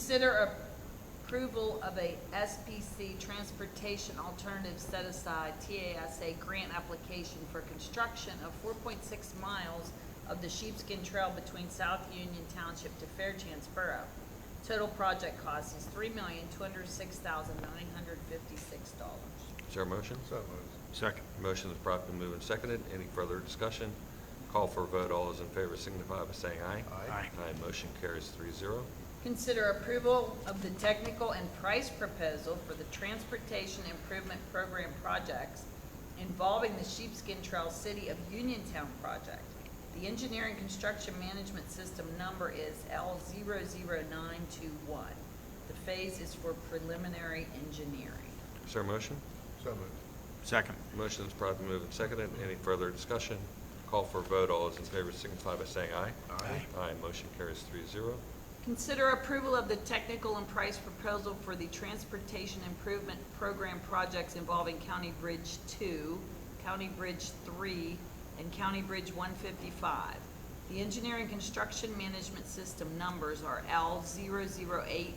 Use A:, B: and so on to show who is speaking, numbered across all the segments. A: Consider approval of a SPC Transportation Alternative Set Aside TASA grant application for construction of four point six miles of the Sheepskin Trail between South Union Township to Fairchance Borough. Total project cost is three million, two hundred six thousand, nine hundred fifty-six dollars.
B: Is there a motion?
C: So moved.
B: Second. Motion is promptly moved and seconded. Any further discussion? Call for a vote. All those in favor signify by saying aye.
C: Aye. Aye.
B: motion carries three zero.
A: Consider approval of the technical and price proposal for the Transportation Improvement Program projects involving the Sheepskin Trail City of Uniontown project. The engineering construction management system number is L 921 The phase is for preliminary engineering.
B: Is there a motion?
C: So moved.
D: Second.
B: Motion is promptly moved and seconded. Any further discussion? Call for a vote. All those in favor signify by saying aye.
C: Aye.
B: Aye, motion carries three zero.
A: Consider approval of the technical and price proposal for the Transportation Improvement Program projects involving County Bridge Two, County Bridge Three, and County Bridge one fifty-five. The engineering construction management system numbers are L 893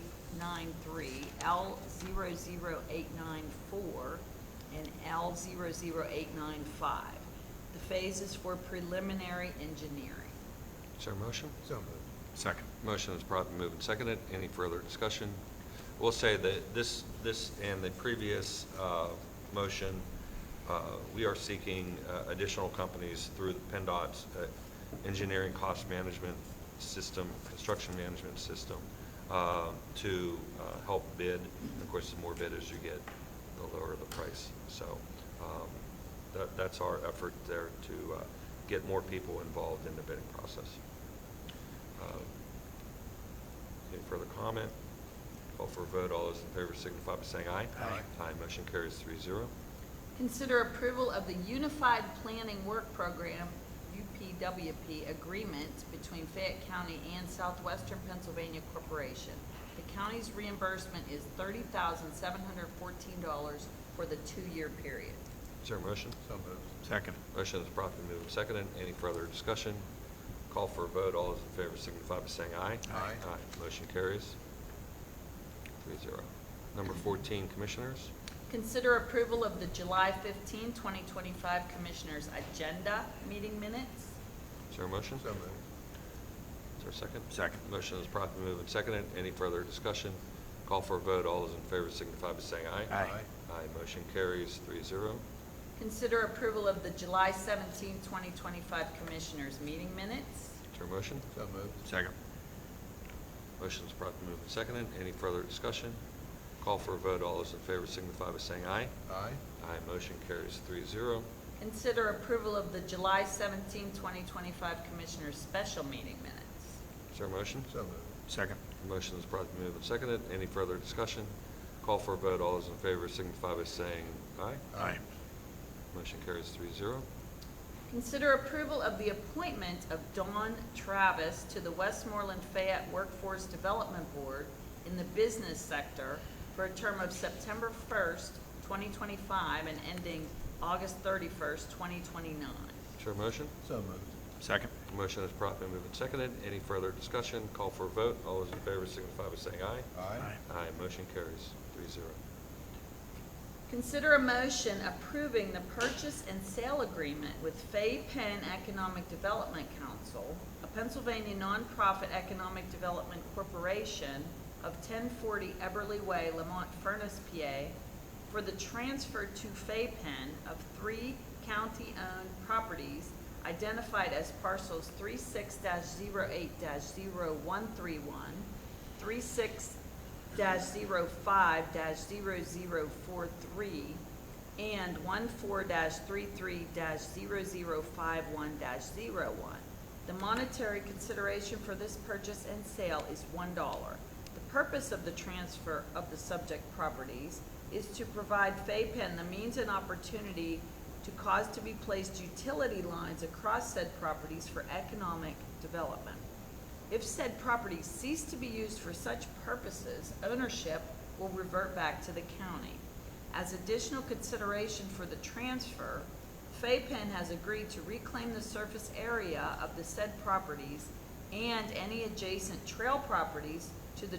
A: L 894 and L 895 The phase is for preliminary engineering.
B: Is there a motion?
C: So moved.
D: Second.
B: Motion is promptly moved and seconded. Any further discussion? We'll say that this, this and the previous uh, motion, uh, we are seeking uh, additional companies through the PennDOT's uh, engineering cost management system, construction management system, uh, to uh, help bid. Of course, the more bidders you get, the lower the price. So um, that, that's our effort there to uh, get more people involved in the bidding process. Uh, any further comment? Call for a vote. All those in favor signify by saying aye.
C: Aye.
B: Aye. Motion carries three zero.
A: Consider approval of the Unified Planning Work Program, UPWP, agreement between Fayette County and Southwestern Pennsylvania Corporation. The county's reimbursement is thirty thousand seven hundred fourteen dollars for the two-year period.
B: Is there a motion?
C: So moved.
D: Second.
B: Motion is promptly moved and seconded. Any further discussion? Call for a vote. All those in favor signify by saying aye.
C: Aye.
B: Aye. Motion carries three zero. Number fourteen, Commissioners.
A: Consider approval of the July 15, 2025 Commissioners' Agenda Meeting Minutes.
B: Is there a motion?
C: So moved.
B: Is there a second?
D: Second.
B: Motion is promptly moved and seconded. Any further discussion? Call for a vote. All those in favor signify by saying aye.
D: Aye.
B: Aye. Motion carries three zero.
A: Consider approval of the July 17, 2025 Commissioners' Meeting Minutes.
B: Is there a motion?
C: So moved.
D: Second.
B: Motion's promptly moved and seconded. Any further discussion? Call for a vote. All those in favor signify by saying aye.
C: Aye.
B: Aye. Motion carries three zero.
A: Consider approval of the July 17, 2025 Commissioners' Special Meeting Minutes.
B: Is there a motion?
C: So moved.
D: Second.
B: Motion is promptly moved and seconded. Any further discussion? Call for a vote. All those in favor signify by saying aye.
D: Aye.
B: Motion carries three zero.
A: Consider approval of the appointment of Dawn Travis to the Westmoreland Fayette Workforce Development Board in the business sector for a term of September 1st, 2025, and ending August 31st, 2029.
B: Is there a motion?
C: So moved.
D: Second.
B: Motion is promptly moved and seconded. Any further discussion? Call for a vote. All those in favor signify by saying aye.
C: Aye.
B: Aye. Motion carries three zero.
A: Consider a motion approving the purchase and sale agreement with Fay Penn Economic Development Council, a Pennsylvania nonprofit economic development corporation of 1040 Eberly Way, Lamont Furnace, PA, for the transfer to Fay Penn of three county-owned properties identified as parcels 36-08-0131, 36 dash zero five dash zero zero four three and one four dash three three dash zero zero five one dash zero one. The monetary consideration for this purchase and sale is one dollar. The purpose of the transfer of the subject properties is to provide FAPEN the means and opportunity to cause to be placed utility lines across said properties for economic development. If said property cease to be used for such purposes, ownership will revert back to the county. As additional consideration for the transfer, FAPEN has agreed to reclaim the surface area of the said properties and any adjacent trail properties to the